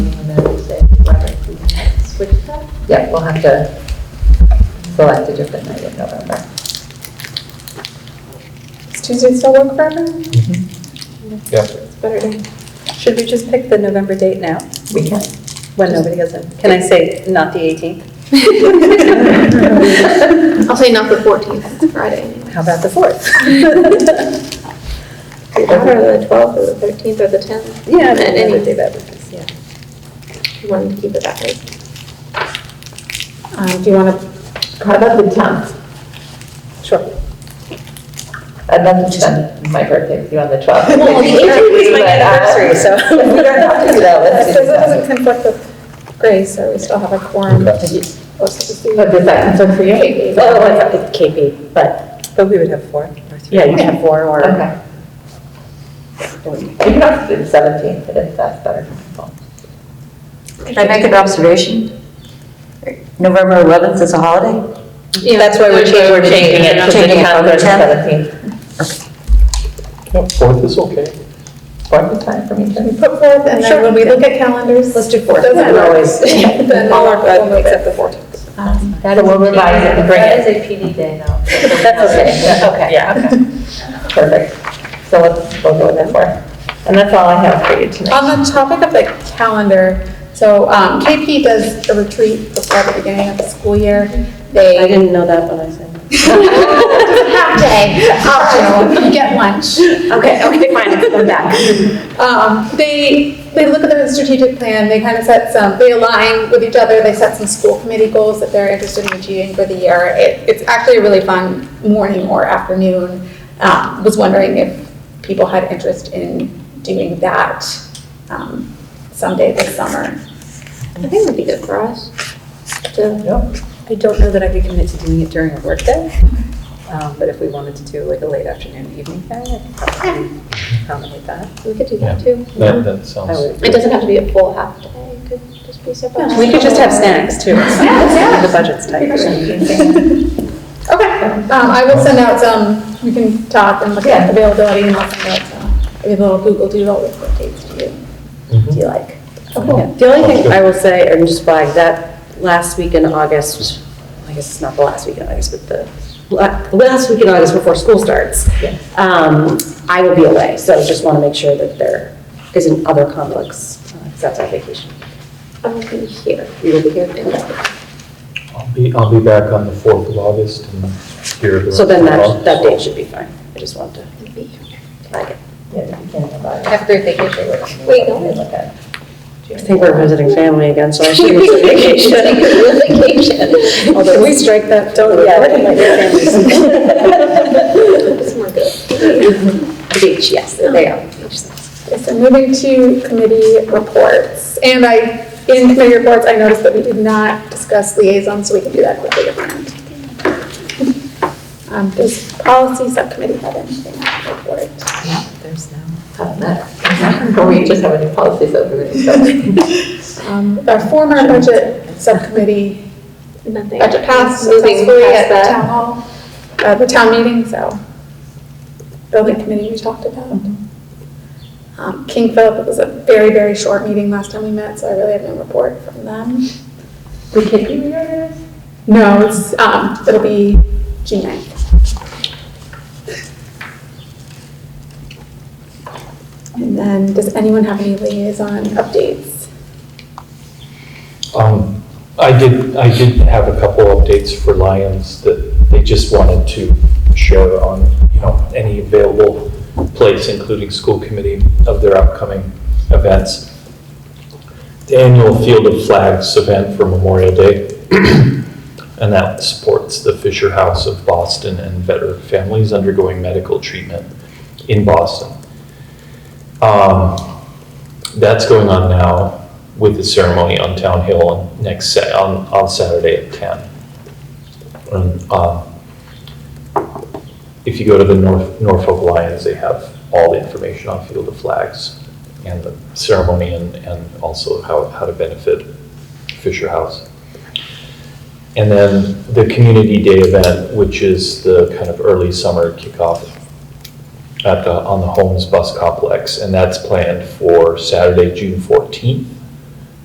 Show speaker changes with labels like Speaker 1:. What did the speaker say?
Speaker 1: yeah, we'll have to select a different night in November.
Speaker 2: Does Tuesday still work for everyone?
Speaker 3: Yeah.
Speaker 2: It's better day. Should we just pick the November date now,
Speaker 1: We can.
Speaker 2: when nobody has it? Can I say not the 18th?
Speaker 4: I'll say not the 14th, it's Friday. anyway.
Speaker 1: How about the 4th?
Speaker 4: Either the 12th or the 13th or the 10th.
Speaker 2: Yeah,
Speaker 4: And any day
Speaker 2: any day
Speaker 4: that yeah. You wanted to keep it that way.
Speaker 1: Um, Do you want to, how about the 10th?
Speaker 2: Sure.
Speaker 1: I'd love to spend my birthday with you on the 12th.
Speaker 2: Well, the 18th is my
Speaker 1: But, uh,
Speaker 2: anniversary, so-
Speaker 1: if We don't have to do that, let's do
Speaker 2: Because
Speaker 1: the
Speaker 2: it
Speaker 1: 10th.
Speaker 2: doesn't conflict with Grace, so we still have a quorum.
Speaker 3: Okay.
Speaker 1: But does that concern for you?
Speaker 5: Well, Oh, it's up to KP, but,
Speaker 2: But we would have four or three.
Speaker 5: yeah, you can have four or.
Speaker 1: Okay. You can also do the 17th, if that's better for people.
Speaker 5: Can I make an observation? November 11th is a holiday?
Speaker 2: That's why we're changing, we're changing it.
Speaker 5: to the
Speaker 1: Changing it from the
Speaker 5: 10th.
Speaker 1: 17th.
Speaker 3: No, fourth is okay.
Speaker 1: Fourth is fine for me, too.
Speaker 2: Put forth, and then when we look at calendars. Let's do fourth. Doesn't always. Then all our, we'll move it the fourth.
Speaker 1: That will revise it and bring it.
Speaker 5: a PD day though.
Speaker 1: That's okay, that's okay. Yeah. Perfect. So let's, we'll go with that for. And that's all I have for you tonight.
Speaker 2: On the topic of the calendar, so um, KP does a retreat before the beginning of the school year.
Speaker 5: I
Speaker 2: They
Speaker 5: didn't know that when I said.
Speaker 2: half day, optional, you get lunch.
Speaker 5: Okay, okay, fine, I'm back.
Speaker 2: Um, They, they look at their strategic plan, they kind of set some, they align with each other, they set some school committee goals that they're interested in achieving for the year. It, it's actually a really fun morning or afternoon. Um, Was wondering if people had interest in doing that um, someday this summer.
Speaker 4: I think it'd be good for us to,
Speaker 6: I don't know that I could commit to doing it during a workday, um, but if we wanted to do like a late afternoon, evening thing, I could probably accommodate that.
Speaker 4: we could do that too.
Speaker 3: That, that
Speaker 6: I
Speaker 3: sounds,
Speaker 6: would.
Speaker 4: It doesn't have to be a full half day, it could just be separate.
Speaker 6: We could just have snacks too. The budget's tight.
Speaker 2: Okay, um, I will send out some, we can talk and look at availability and I'll send out some, maybe a little Google Doodle with what dates do you,
Speaker 3: Mm-hmm.
Speaker 2: do you like?
Speaker 5: Yeah, The only thing I will say, and just flag, that last week in August, I guess it's not the last week in August, but the la- last week in August before school starts, um, I will be away, so just want to make sure that there isn't other conflicts, because that's our vacation.
Speaker 4: I'm gonna be here.
Speaker 5: You will be here?
Speaker 3: I'll be, I'll be back on the fourth of August and here. the
Speaker 5: So then
Speaker 3: rest
Speaker 5: that,
Speaker 3: of the
Speaker 5: that
Speaker 3: month,
Speaker 5: date should be fine. I just wanted
Speaker 4: I'm gonna be here.
Speaker 5: to flag it.
Speaker 1: Yeah, the beginning of August.
Speaker 6: Have a great vacation.
Speaker 1: We can look at it.
Speaker 5: I think we're visiting family again, so I should use the vacation. Although
Speaker 6: Although we strike that, don't,
Speaker 5: Yeah,
Speaker 6: yeah,
Speaker 5: I don't like your families.
Speaker 4: It's more good.
Speaker 5: Beach, yes, there
Speaker 1: É.
Speaker 5: they are.
Speaker 2: Okay, So moving to committee reports, and I, in committee reports, I noticed that we did not discuss liaisons, so we can do that quickly at the end. Um, does policy subcommittee have anything to report?
Speaker 6: There's no.
Speaker 1: Doesn't matter. We just have a new policy, so we would just.
Speaker 2: Um, our former budget subcommittee
Speaker 4: Nothing.
Speaker 2: budget passed
Speaker 4: Moving
Speaker 2: successfully
Speaker 4: past
Speaker 2: at the
Speaker 4: that.
Speaker 2: town hall, uh, the town meeting, so. Building committee we talked about. Um, King Philip, it was a very, very short meeting last time we met, so I really have no report from them.
Speaker 1: We can do yours.
Speaker 2: No, it's, um, it'll be June ninth. And then, does anyone have any liaison updates?
Speaker 3: Um, I did, I did have a couple updates for Lions that they just wanted to share on, you know, any available place, including school committee, of their upcoming events. The annual Field of Flags event for Memorial Day, and that supports the Fisher House of Boston and veteran families undergoing medical treatment in Boston. Um, That's going on now with the ceremony on Town Hill on next, Sa- on, on Saturday at ten. And, um, if you go to the North Norfolk Lions, they have all the information on Field of Flags and the ceremony and, and also how, how to benefit Fisher House. And then the Community Day event, which is the kind of early summer kickoff at the, on the Holmes Bus Complex. And that's planned for Saturday, June fourteenth